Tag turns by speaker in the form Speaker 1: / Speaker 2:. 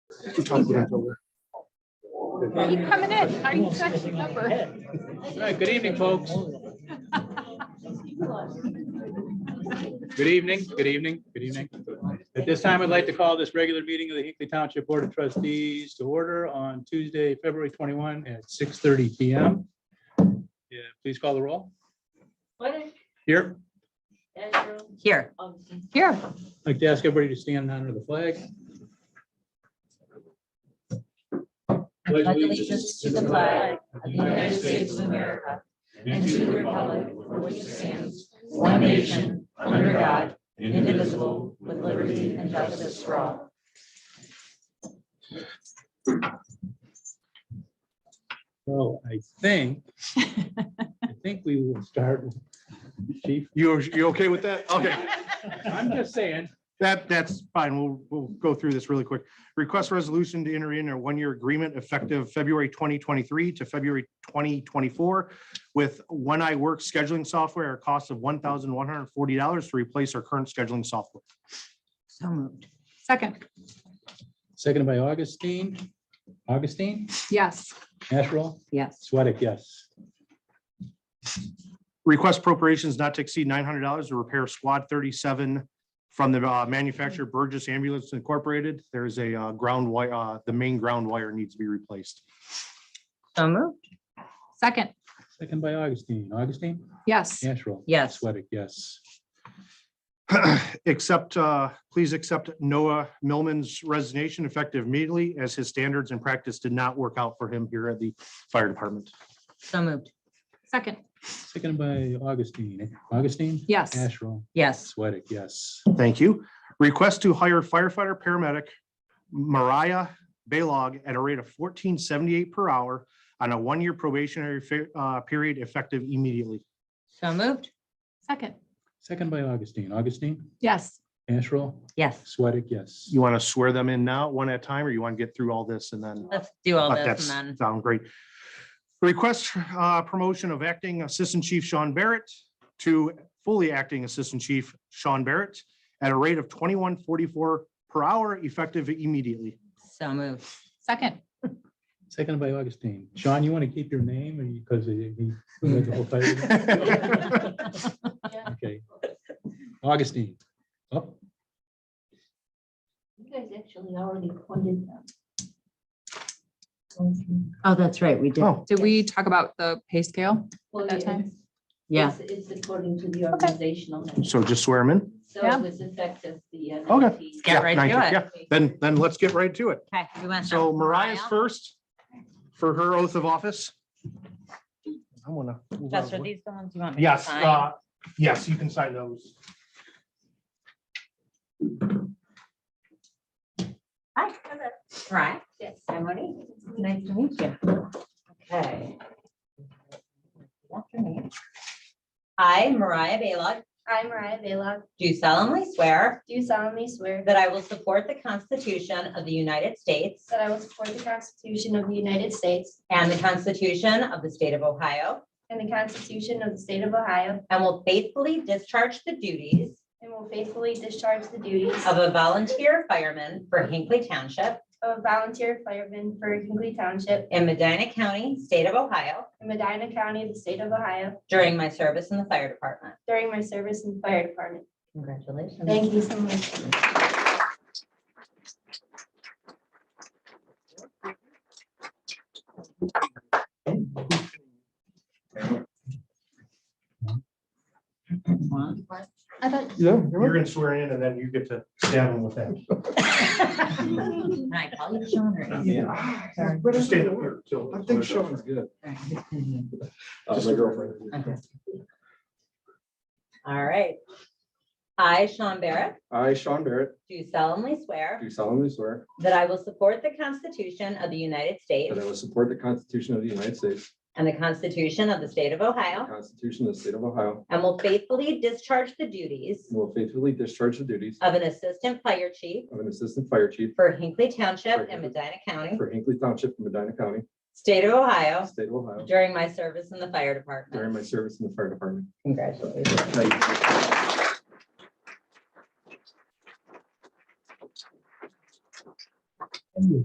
Speaker 1: Keep coming in. Are you checking number?
Speaker 2: All right, good evening, folks. Good evening, good evening, good evening. At this time, I'd like to call this regular meeting of the Hinkley Township Board of Trustees to order on Tuesday, February 21 at 6:30 PM. Yeah, please call the roll.
Speaker 3: What
Speaker 2: Here,
Speaker 3: Andrew
Speaker 4: Here,
Speaker 3: Austin?
Speaker 1: Here.
Speaker 2: I'd like to ask everybody to stand under the flag.
Speaker 4: pledge allegiance to the flag of the United States of America and to the republic for which it stands, one nation, under God, indivisible, with liberty and justice for all.
Speaker 2: So I think, I think we will start. Chief,
Speaker 5: You, you okay with that? Okay,
Speaker 2: I'm just saying,
Speaker 5: that, that's fine. We'll, we'll go through this really quick. Request resolution to enter in a one-year agreement effective February 2023 to February 2024 with One Eye Work scheduling software at a cost of $1,140 to replace our current scheduling software.
Speaker 4: So moved.
Speaker 1: Second,
Speaker 2: seconded by Augustine. Augustine,
Speaker 1: yes.
Speaker 2: Asherall,
Speaker 4: Yes.
Speaker 2: Sweattick, yes.
Speaker 5: Request appropriations not to exceed nine hundred dollars to repair Squad thirty-seven from the uh, manufacturer Burgess Ambulance Incorporated. There is a uh, ground wire, uh, the main ground wire needs to be replaced.
Speaker 4: So moved.
Speaker 1: Second,
Speaker 2: Second by Augustine. Augustine,
Speaker 1: yes.
Speaker 2: Asherall.
Speaker 4: Yes.
Speaker 2: Sweattick, yes.
Speaker 5: Accept, uh, please accept Noah Millman's resignation effective immediately as his standards and practice did not work out for him here at the fire department.
Speaker 4: So moved.
Speaker 1: Second,
Speaker 2: Seconded by Augustine. Augustine,
Speaker 1: yes.
Speaker 2: Asherall,
Speaker 4: Yes.
Speaker 2: Sweattick, yes.
Speaker 5: Thank you. Request to hire firefighter paramedic Mariah Baylog at a rate of fourteen seventy-eight per hour on a one-year probationary fa- uh, period effective immediately.
Speaker 4: So moved.
Speaker 1: Second,
Speaker 2: Second by Augustine. Augustine,
Speaker 1: yes.
Speaker 2: Asherall,
Speaker 4: Yes.
Speaker 2: Sweattick, yes.
Speaker 5: You want to swear them in now, one at a time, or you want to get through all this and then?
Speaker 4: Let's do all
Speaker 5: But
Speaker 4: this
Speaker 5: that's,
Speaker 4: and then.
Speaker 5: sound great. Request uh, promotion of acting Assistant Chief Sean Barrett to fully acting Assistant Chief Sean Barrett at a rate of twenty-one forty-four per hour effective immediately.
Speaker 4: So moved.
Speaker 1: Second,
Speaker 2: Seconded by Augustine. Sean, you want to keep your name or you, because he, he- the whole title? Okay. Augustine, Oh, up.
Speaker 3: You guys actually already appointed them.
Speaker 4: Oh, that's right. We did.
Speaker 5: Oh,
Speaker 1: did we talk about the pay scale?
Speaker 3: Well,
Speaker 1: That time?
Speaker 3: it's-
Speaker 4: Yeah.
Speaker 3: it's- It's according to the organizational. number.
Speaker 5: so just swear them in?
Speaker 3: So
Speaker 1: Yeah.
Speaker 3: it was effective the. uh,
Speaker 5: Okay.
Speaker 3: 19th.
Speaker 4: Get
Speaker 5: Yeah,
Speaker 4: right
Speaker 5: 19,
Speaker 4: to it.
Speaker 5: yeah. Then, then let's get right to it.
Speaker 4: Okay. we went
Speaker 5: So
Speaker 4: down.
Speaker 5: Mariah's first for her oath of office. I wanna. move out of
Speaker 4: Jess, are
Speaker 5: the way.
Speaker 4: these the ones you want? me to
Speaker 5: uh, Yes,
Speaker 4: sign?
Speaker 5: uh, yes, you can sign those.
Speaker 4: Hi. Right.
Speaker 3: Yes.
Speaker 4: Hi, Moni. Nice to meet you. Okay. After me. I, Mariah Baylock,
Speaker 6: I, Mariah Bela,
Speaker 4: do solemnly swear
Speaker 6: do solemnly swear
Speaker 4: that I will support the Constitution of the United States
Speaker 6: that I will support the Constitution of the United States
Speaker 4: and the Constitution of the State of Ohio,
Speaker 6: and the Constitution of the State of Ohio,
Speaker 4: and will faithfully discharge the duties
Speaker 6: and will faithfully discharge the duties
Speaker 4: of a volunteer fireman for Hinkley Township
Speaker 6: of a volunteer fireman for Hinkley Township
Speaker 4: in Medina County, State of Ohio,
Speaker 6: in Medina County, the State of Ohio,
Speaker 4: during my service in the fire department.
Speaker 6: during my service in the fire department.
Speaker 4: Congratulations.
Speaker 6: Thank you so much. I thought,
Speaker 5: You're gonna swear in and then you get to stab him with that.
Speaker 4: Can I call you Sean or? Ian? Sorry.
Speaker 5: Just stay there till-
Speaker 7: I think Sean's good. Uh, my girlfriend.
Speaker 4: Okay. All right. I, Sean Barrett,
Speaker 7: I, Sean Barrett,
Speaker 4: do solemnly swear
Speaker 7: do solemnly swear
Speaker 4: that I will support the Constitution of the United States
Speaker 7: that I will support the Constitution of the United States,
Speaker 4: and the Constitution of the State of
Speaker 7: the
Speaker 4: Ohio,
Speaker 7: Constitution of the State of Ohio,
Speaker 4: and will faithfully discharge the duties
Speaker 7: and will faithfully discharge the duties
Speaker 4: of an Assistant Fire Chief
Speaker 7: of an Assistant Fire Chief
Speaker 4: for Hinkley Township
Speaker 7: For
Speaker 4: in
Speaker 7: Hinkley-
Speaker 4: Medina County,
Speaker 7: for Hinkley Township, in Medina County,
Speaker 4: State of Ohio,
Speaker 7: State of Ohio,
Speaker 4: during my service in the fire department.
Speaker 7: during my service in the fire department.
Speaker 4: Congratulations.
Speaker 7: Thank you.